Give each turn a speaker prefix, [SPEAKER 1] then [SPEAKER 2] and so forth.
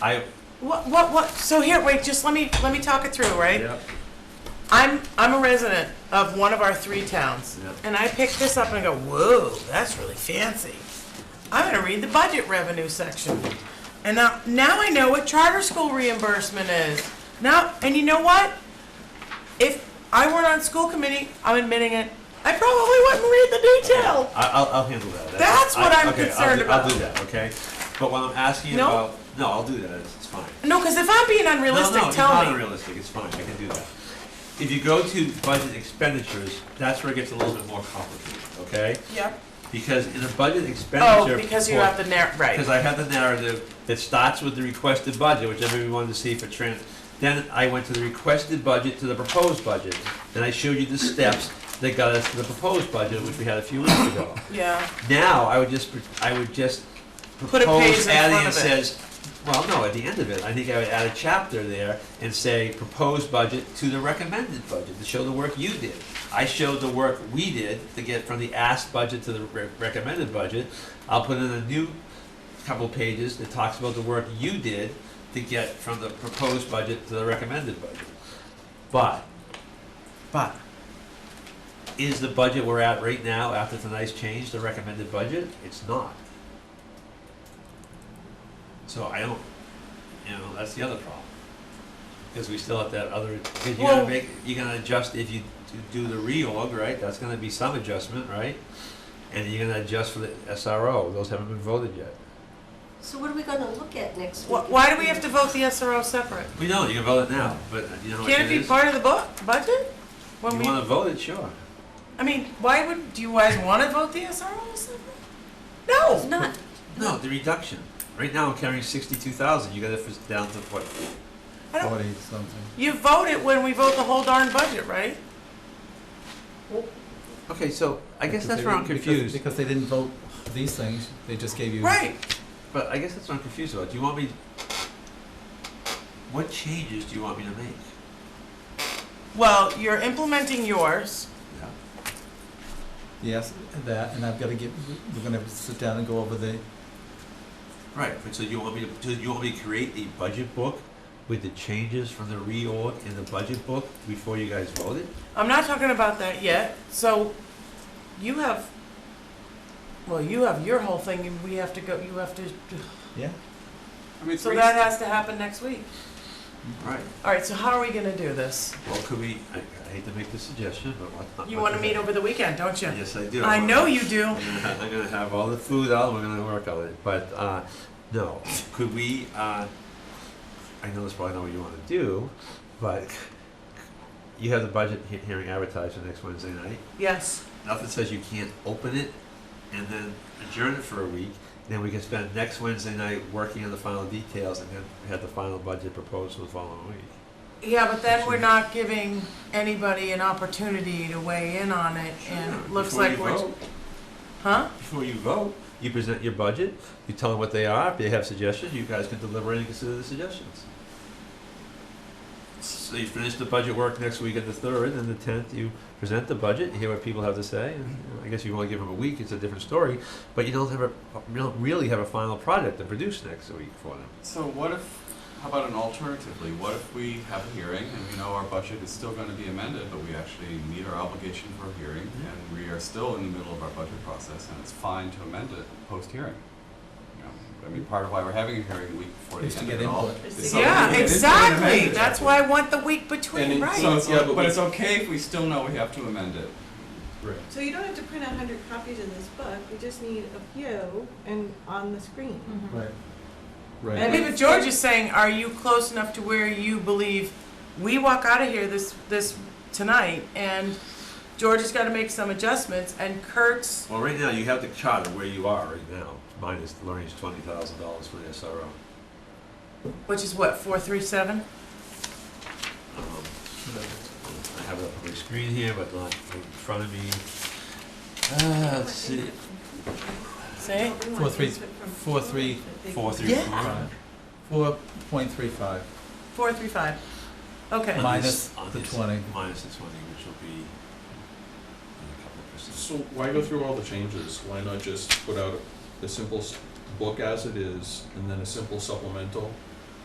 [SPEAKER 1] I,
[SPEAKER 2] What, what, what, so here, wait, just let me, let me talk it through, right?
[SPEAKER 1] yeah,
[SPEAKER 2] I'm, I'm a resident of one of our three towns.
[SPEAKER 1] Yep.
[SPEAKER 2] And I pick this up and I go, whoa, that's really fancy. I'm gonna read the budget revenue section. And now, now I know what charter school reimbursement is. Now, and you know what? If I weren't on school committee, I'm admitting it, I probably wouldn't read the detail.
[SPEAKER 1] I, I'll, I'll handle that.
[SPEAKER 2] That's what I'm
[SPEAKER 1] okay, I'll
[SPEAKER 2] concerned
[SPEAKER 1] do-
[SPEAKER 2] about.
[SPEAKER 1] I'll do that, okay? But when I'm asking
[SPEAKER 2] No?
[SPEAKER 1] about, no, I'll do that, it's, it's fine.
[SPEAKER 2] No, because if I'm being
[SPEAKER 1] No, no,
[SPEAKER 2] unrealistic,
[SPEAKER 1] it's
[SPEAKER 2] tell
[SPEAKER 1] not
[SPEAKER 2] me.
[SPEAKER 1] unrealistic, it's fine, I can do that. If you go to budget expenditures, that's where it gets a little bit more complicated, okay?
[SPEAKER 2] Yep.
[SPEAKER 1] Because in a budget expenditure.
[SPEAKER 2] Oh, because you have the narr,
[SPEAKER 1] Because
[SPEAKER 2] right.
[SPEAKER 1] I have the narrative that starts with the requested budget, which everyone wanted to see for trans. Then I went to the requested budget to the proposed budget, and I showed you the steps that got us to the proposed budget, which we had a few weeks ago.
[SPEAKER 2] Yeah.
[SPEAKER 1] Now, I would just, pr- I would just
[SPEAKER 2] Put a page
[SPEAKER 1] propose
[SPEAKER 2] in
[SPEAKER 1] adding
[SPEAKER 2] front
[SPEAKER 1] and
[SPEAKER 2] of it.
[SPEAKER 1] says, well, no, at the end of it, I think I would add a chapter there and say, proposed budget to the recommended budget, to show the work you did. I showed the work we did to get from the asked budget to the re- recommended budget. I'll put in a new couple pages that talks about the work you did to get from the proposed budget to the recommended budget. But, but, is the budget we're at right now after tonight's change the recommended budget? It's not. So I don't, you know, that's the other problem. Because we still have that other, because you're
[SPEAKER 2] Well-
[SPEAKER 1] gonna make, you're gonna adjust if you do the reorg, right? That's gonna be some adjustment, right? And you're gonna adjust for the SRO, those haven't been voted yet.
[SPEAKER 3] So what are we gonna look at next
[SPEAKER 2] Why,
[SPEAKER 3] week?
[SPEAKER 2] why do we have to vote the SRO separate?
[SPEAKER 1] We know, you can vote it now, but you know what
[SPEAKER 2] Can't
[SPEAKER 1] it
[SPEAKER 2] it be
[SPEAKER 1] is?
[SPEAKER 2] part of the book, budget? When
[SPEAKER 1] You
[SPEAKER 2] we,
[SPEAKER 1] wanna vote it, sure.
[SPEAKER 2] I mean, why would, do you guys wanna vote the SRO separate? No,
[SPEAKER 3] It's not,
[SPEAKER 1] No, the reduction. Right now, I'm carrying sixty-two thousand, you got it for- down to what,
[SPEAKER 2] I don't,
[SPEAKER 4] forty something.
[SPEAKER 2] you vote it when we vote the whole darn budget, right?
[SPEAKER 1] Okay, so I guess
[SPEAKER 4] Because
[SPEAKER 1] that's
[SPEAKER 4] they
[SPEAKER 1] where I'm
[SPEAKER 4] didn't- because-
[SPEAKER 1] confused.
[SPEAKER 4] Because they didn't vote these things, they just gave you.
[SPEAKER 2] Right,
[SPEAKER 1] But I guess that's what I'm confused about. Do you want me? What changes do you want me to make?
[SPEAKER 2] well, you're implementing yours,
[SPEAKER 1] Yeah.
[SPEAKER 4] Yes, that, and I've gotta get, we're gonna have to sit down and go over the,
[SPEAKER 1] Right. But so you want me to? Do you want me to create a budget book with the changes from the reorg in the budget book before you guys vote it?
[SPEAKER 2] I'm not talking about that yet, so you have, well, you have your whole thing and we have to go, you have to,
[SPEAKER 4] yeah,
[SPEAKER 5] I mean,
[SPEAKER 2] so
[SPEAKER 5] three-
[SPEAKER 2] that has to happen next week.
[SPEAKER 1] Right.
[SPEAKER 2] All right, so how are we gonna do this?
[SPEAKER 1] Well, could we? I, I hate to make the suggestion, but what?
[SPEAKER 2] You wanna meet over the weekend, don't you?
[SPEAKER 1] Yes, I do.
[SPEAKER 2] I know you do.
[SPEAKER 1] I'm gonna ha- I'm gonna have all the food out, we're gonna work on it, but, uh, no, could we, uh, I know that's probably not what you wanna do, but you have the budget he- hearing advertised for next Wednesday night.
[SPEAKER 2] Yes.
[SPEAKER 1] Nothing says you can't open it and then adjourn it for a week, then we can spend next Wednesday night working on the final details and then have the final budget proposed for the following week.
[SPEAKER 2] Yeah, but then we're not giving anybody an opportunity to weigh in on it, and it looks
[SPEAKER 1] Before you
[SPEAKER 2] like we're,
[SPEAKER 1] vote-
[SPEAKER 2] huh?
[SPEAKER 1] Before you vote, you present your budget, you tell them what they are, if they have suggestions, you guys can deliberate and consider the suggestions. So you finish the budget work next week at the third, and the tenth, you present the budget, you hear what people have to say, and you know, I guess you wanna give them a week, it's a different story, but you don't have a, you don't really have a final product to produce next week for them.
[SPEAKER 5] so what if, how about an alternatively, what if we have a hearing and we know our budget is still gonna be amended, but we actually meet our obligation for a hearing,
[SPEAKER 4] Mm-hmm.
[SPEAKER 5] and we are still in the middle of our budget process, and it's fine to amend it post-hearing? You know, I mean, part of why we're having a hearing a week before
[SPEAKER 4] Is
[SPEAKER 5] the
[SPEAKER 4] to
[SPEAKER 5] end
[SPEAKER 4] get
[SPEAKER 5] of it all.
[SPEAKER 4] input.
[SPEAKER 5] is so that we
[SPEAKER 2] Yeah,
[SPEAKER 5] can-
[SPEAKER 2] exactly, that's why I want the week
[SPEAKER 5] And
[SPEAKER 2] between,
[SPEAKER 5] it- so
[SPEAKER 2] right?
[SPEAKER 5] it's,
[SPEAKER 4] Yeah, but
[SPEAKER 5] but it's okay if we still know we have to amend it.
[SPEAKER 6] So you don't have to print a hundred copies of this book, you just need a few and on the screen.
[SPEAKER 4] right, right.
[SPEAKER 2] I mean, but George is saying, are you close enough to where you believe, we walk out of here this, this, tonight, and George has gotta make some adjustments, and Kurt's,
[SPEAKER 1] Well, right now, you have the chart of where you are right now, minus Lorraine's twenty thousand dollars for the SRO.
[SPEAKER 2] which is what, four, three, seven?
[SPEAKER 1] Um, I have it up on my screen here, but not in front of me. Uh, let's see,
[SPEAKER 2] Say,
[SPEAKER 4] Four, three- four, three,
[SPEAKER 1] four, three,
[SPEAKER 2] Yeah.
[SPEAKER 1] four.
[SPEAKER 4] Four point three five,
[SPEAKER 2] four, three, five, okay.
[SPEAKER 1] On
[SPEAKER 4] Minus
[SPEAKER 1] this- on
[SPEAKER 4] the
[SPEAKER 1] this-
[SPEAKER 4] 20.
[SPEAKER 1] Minus the twenty, which will be uh, a couple of percent.
[SPEAKER 7] So why go through all the changes? Why not just put out a simple s- book as it is and then a simple supplemental